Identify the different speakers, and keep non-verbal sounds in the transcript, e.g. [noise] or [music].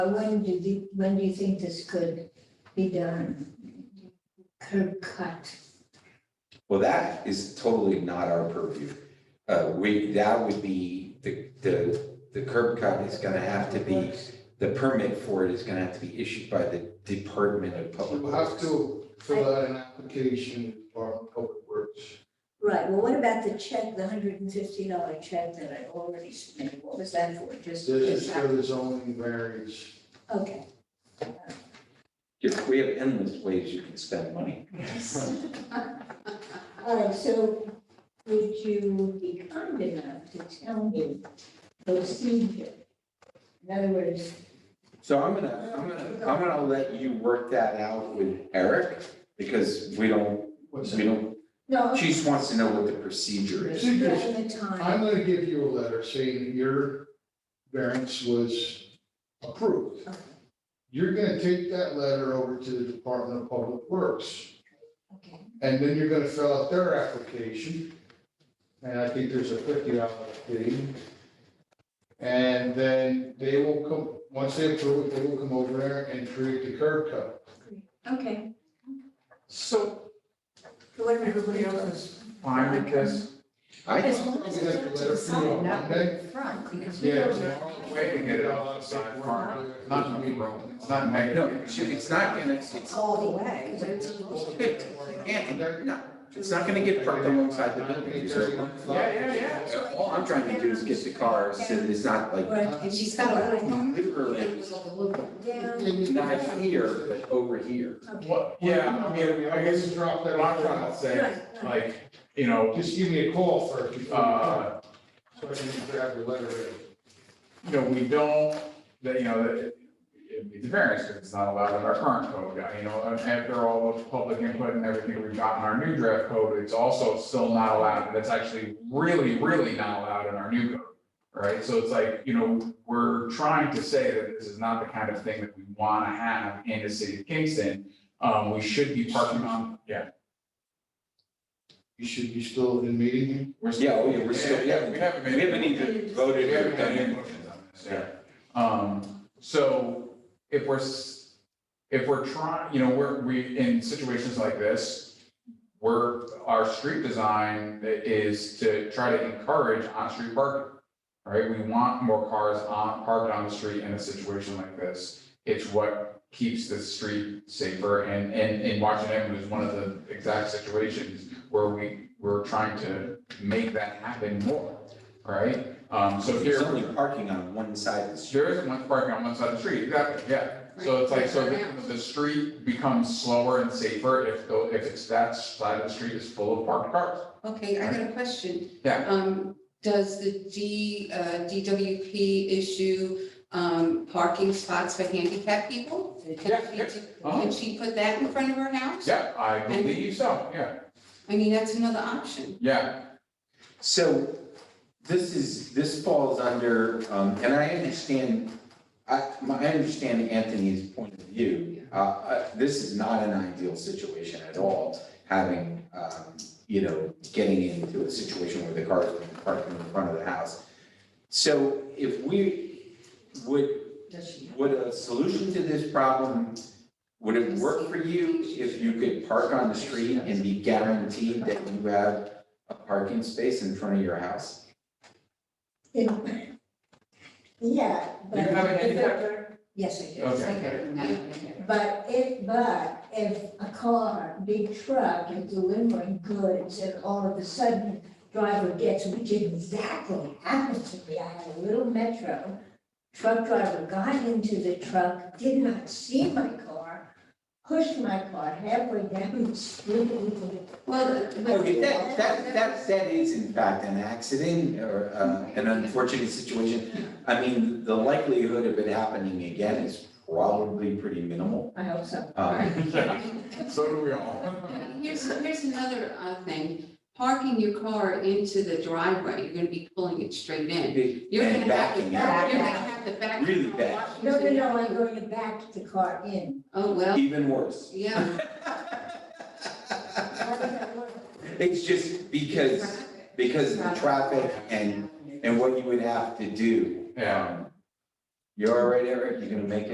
Speaker 1: When do you, when do you think this could be done? Curb cut,
Speaker 2: Well, that is totally not our purview. Uh, we, that would be, the, the, the curb cut is gonna have to be, the permit for it is gonna have to be issued by the Department of Public
Speaker 3: You have
Speaker 2: Works.
Speaker 3: to fill out an application for public works.
Speaker 1: right, well, what about the check, the hundred and fifty dollar check that I already submitted, what was that for, just?
Speaker 3: This is for the zoning variance.
Speaker 1: Okay, [laughs]
Speaker 2: If we have endless ways you can spend money.
Speaker 1: yes. All right, so would you be kind enough to tell me procedure? In other words,
Speaker 2: So I'm gonna, I'm gonna, I'm gonna let you work that out with Eric, because we don't,
Speaker 3: What's
Speaker 2: we
Speaker 3: that?
Speaker 2: don't,
Speaker 1: no,
Speaker 2: she just wants to know what the procedure is.
Speaker 3: Procedures.
Speaker 1: the time,
Speaker 3: I'm gonna give you a letter saying that your variance was approved.
Speaker 1: Okay.
Speaker 3: You're gonna take that letter over to the Department of Public Works.
Speaker 1: okay.
Speaker 3: And then you're gonna fill out their application. And I think there's a fifty dollar fee. And then they will come, once they approve it, they will come over there and create the curb cut.
Speaker 1: Okay,
Speaker 4: So
Speaker 1: so what do we
Speaker 4: everybody else is fine with this?
Speaker 2: I,
Speaker 1: As long as it's up to the side, not the front, because we
Speaker 3: Yeah.
Speaker 1: don't.
Speaker 3: tomorrow,
Speaker 4: Way to get it all outside farm. It's not gonna be wrong. It's not negative.
Speaker 2: no, it's not gonna, it's,
Speaker 1: All the way.
Speaker 2: and, no, it's not gonna get parked alongside the building.
Speaker 4: Yeah, yeah,
Speaker 2: Uh, All I'm trying to do is get the cars, and it's not like
Speaker 1: Right, and she's got a little
Speaker 2: literally
Speaker 1: down,
Speaker 2: not here, but over here.
Speaker 1: okay.
Speaker 4: What, yeah, I mean, I guess it's
Speaker 3: drop
Speaker 4: what I'm trying to say,
Speaker 1: Right, right.
Speaker 4: like, you know,
Speaker 3: Just give me a call first. before you come.
Speaker 4: uh,
Speaker 3: So I can grab the letter.
Speaker 4: you know, we don't, that, you know, that it- it's variance, because it's not allowed in our current code, you know, and after all the public input and everything we've got in our new draft code, it's also still not allowed, and it's actually really, really not allowed in our new code. Right, so it's like, you know, we're trying to say that this is not the kind of thing that we wanna have in the city of Kingston. Um, we should be parking on, yeah.
Speaker 3: You should be still in meeting.
Speaker 4: we're
Speaker 2: Yeah, oh, yeah, we're still- yeah,
Speaker 4: We haven't
Speaker 2: We
Speaker 4: made.
Speaker 2: haven't even voted
Speaker 4: We
Speaker 2: or
Speaker 4: haven't had
Speaker 2: done
Speaker 4: any
Speaker 2: it.
Speaker 4: motions on this, yeah. Um, so if we're, s- if we're trying, you know, we're, we, in situations like this, we're, our street design is to try to encourage on-street parking. Right? We want more cars on, parked on the street in a situation like this. It's what keeps the street safer and, and, and Washington Avenue is one of the exact situations where we, we're trying to make that happen more, right? Um, so here.
Speaker 2: There's only parking on one side of the street.
Speaker 4: There isn't much parking on one side of the street, exactly, yeah. So it's like, so the, the street becomes slower and safer if, tho- if it's that side of the street is full of parked cars.
Speaker 5: Okay, I got a question.
Speaker 4: Yeah.
Speaker 5: Um, does the D, uh, DWP issue, um, parking spots for handicapped people? Can
Speaker 4: Yeah,
Speaker 5: she,
Speaker 4: yeah.
Speaker 5: can she put that in front of her house?
Speaker 4: Uh-huh. Yeah, I believe so, yeah,
Speaker 5: I mean, that's another option.
Speaker 4: yeah. [laughs]
Speaker 2: So this is, this falls under, um, and I understand, I, my, I understand Anthony's point of view. Uh, Uh, this is not an ideal situation at all, having, um, you know, getting into a situation where the cars are parked in front of the house. So if we, would, would a solution to this problem, would it work for you if you could park on the street and be guaranteed that you have a parking space in front of your house?
Speaker 1: Yeah, but.
Speaker 4: You have a handicap?
Speaker 1: Yes, I do.
Speaker 4: Okay.
Speaker 1: But if, but if a car, big truck is delivering goods and all of a sudden driver gets, which exactly happened to me, I had a little Metro. Truck driver got into the truck, did not see my car, pushed my car halfway down the street.
Speaker 5: Well, uh, but.
Speaker 2: Okay, that, that, that, that is in fact an accident or uh, an unfortunate situation. I mean, the likelihood of it happening again is probably pretty minimal.
Speaker 1: I hope so.
Speaker 2: Um,
Speaker 4: So do we all.
Speaker 5: Here's, here's another, uh, thing. Parking your car into the driveway, you're gonna be pulling it straight in. You're gonna
Speaker 2: And
Speaker 5: have to,
Speaker 2: backing
Speaker 5: you're
Speaker 2: out,
Speaker 5: gonna have to back.
Speaker 2: Really
Speaker 5: up
Speaker 2: bad.
Speaker 1: No, no,
Speaker 5: Washington.
Speaker 1: no, I'm going to back the car in.
Speaker 5: Oh, well,
Speaker 2: even worse.
Speaker 5: yeah.
Speaker 1: How does that work?
Speaker 2: It's just because, because of the traffic and, and what you would have to do.
Speaker 4: Yeah.
Speaker 2: Um, You're all right, Eric? You gonna make it?